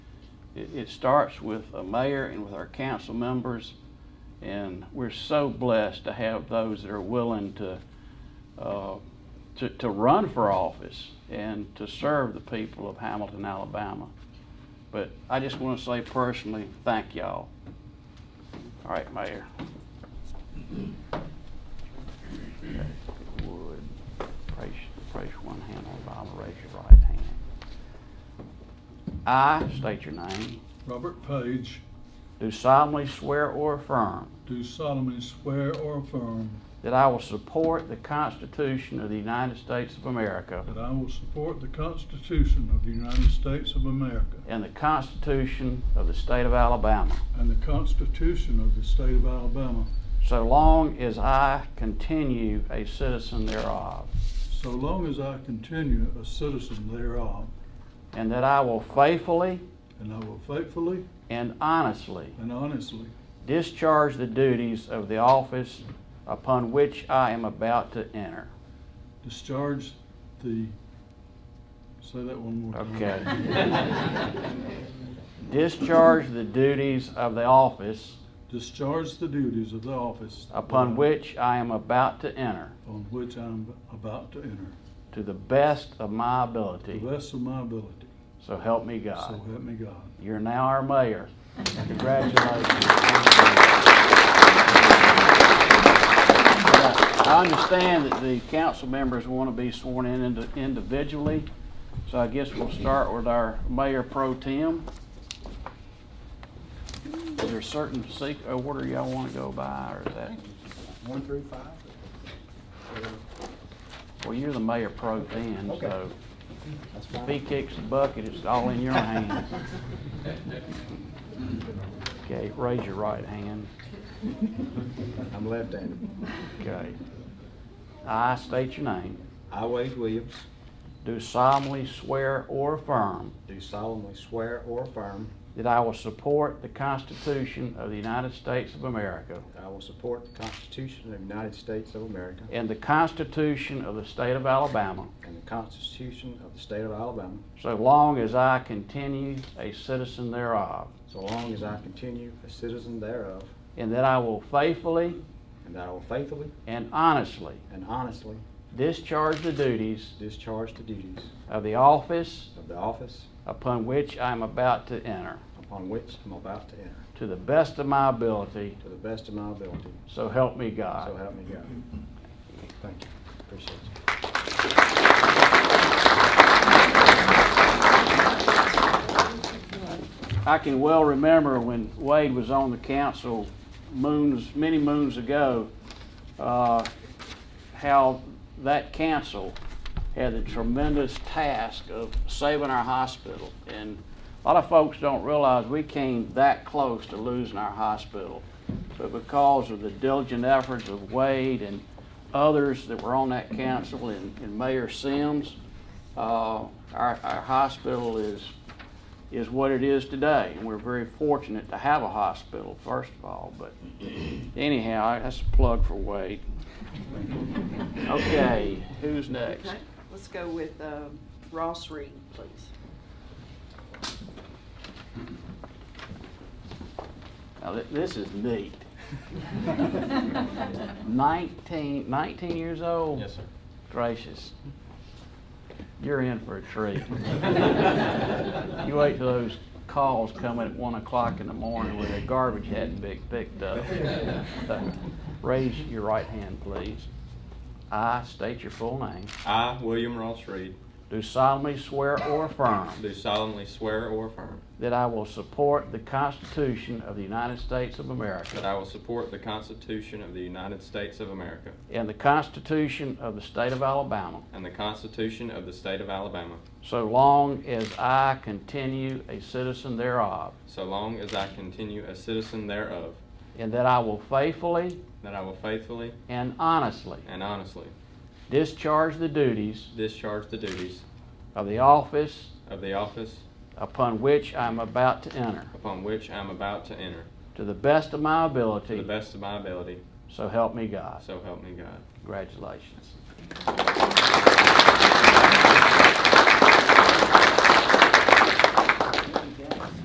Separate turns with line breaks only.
It, it starts with a mayor and with our council members, and we're so blessed to have those that are willing to, uh, to, to run for office and to serve the people of Hamilton, Alabama. But I just want to say personally, thank y'all. All right, Mayor. Would, raise, raise one hand on the Bible, raise your right hand. I state your name,
Robert Page,
do solemnly swear or affirm
do solemnly swear or affirm
that I will support the Constitution of the United States of America
that I will support the Constitution of the United States of America
and the Constitution of the State of Alabama,
and the Constitution of the State of Alabama,
so long as I continue a citizen thereof,
so long as I continue a citizen thereof,
and that I will faithfully
and I will faithfully
and honestly
and honestly
discharge the duties of the office upon which I am about to enter.
discharge the, say that one more time.
Okay. Discharge the duties of the office
Discharge the duties of the office
upon which I am about to enter
On which I'm about to enter,
to the best of my
to
ability.
the best of my ability,
So help me
so
God.
help me God.
You're now our mayor. Congratulations. I understand that the council members want to be sworn in indi- individually, so I guess we'll start with our mayor pro tem. Is there a certain sec, uh, order y'all want to go by, or is that,
One through five?
well, you're the mayor pro tem, so
That's
if
fine.
he kicks the bucket, it's all in your hands. Okay, raise your right hand.
I'm left-handed.
Okay. I state your name.
I, Wade Williams,
Do solemnly swear or affirm
do solemnly swear or affirm
that I will support the Constitution of the United States of America
that I will support the Constitution of the United States of America
and the Constitution of the State of Alabama
and the Constitution of the State of Alabama,
so long as I continue a citizen thereof,
so long as I continue a citizen thereof,
and that I will faithfully
and that I will faithfully
and honestly
and honestly
discharge the duties
discharge the duties
of the office
of the office
upon which I am about to enter
upon which I'm about to enter,
to the best of my ability,
to the best of my ability,
so help me
so
God.
help me God. Thank you, appreciate you.
I can well remember when Wade was on the council moons, many moons ago, uh, how that council had the tremendous task of saving our hospital. And a lot of folks don't realize we came that close to losing our hospital. But because of the diligent efforts of Wade and others that were on that council and and Mayor Sims, uh, our, our hospital is, is what it is today. And we're very fortunate to have a hospital, first of all. But anyhow, that's a plug for Wade. Okay, who's next?
Okay, let's go with uh, Ross Reed, please.
Now, thi- this is neat. 19, 19 years old? Yes, sir. Gracious. You're in for a treat. You wait till those calls come in at 1 o'clock in the morning where the garbage hadn't been picked up. Raise your right hand, please. I state your full name.
I, William Ross Reed,
Do solemnly swear or affirm
do solemnly swear or affirm
that I will support the Constitution of the United States of
that
America
I will support the Constitution of the United States of America
and the Constitution of the State of Alabama
and the Constitution of the State of Alabama,
so long as I continue a citizen thereof,
so long as I continue a citizen thereof,
and that I will faithfully
that I will faithfully
and honestly
and honestly
discharge the duties
discharge the duties
of the office
of the office
upon which I am about to enter
upon which I am about to enter
to the best of my
to the
ability,
best of my ability,
so help me God.
so help me God.
Congratulations.